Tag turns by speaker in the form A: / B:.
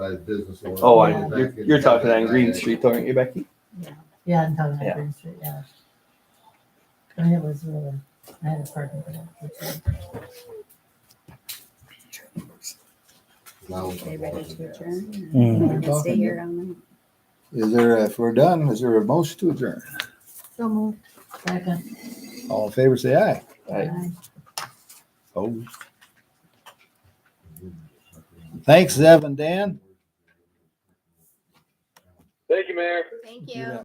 A: by business owner.
B: Oh, I,
A: Back
B: you're,
A: in-
B: you're talking
A: back in
B: on Green
A: that day.
B: Street, aren't you, Becky?
C: Yeah, I'm talking
B: Yeah.
C: about Green Street, yeah. I mean, it was really, I had a parking for that.
A: Now it's
D: They ready to adjourn?
E: Mm.
D: Or you wanna Stay here all night?
E: Is there, if we're done, is there a motion to adjourn?
C: So moved. Second.
E: All in favor, say aye.
B: Right.
E: Oh. Thanks, Evan, Dan.
F: Thank you, Mayor.
D: Thank
E: You bet.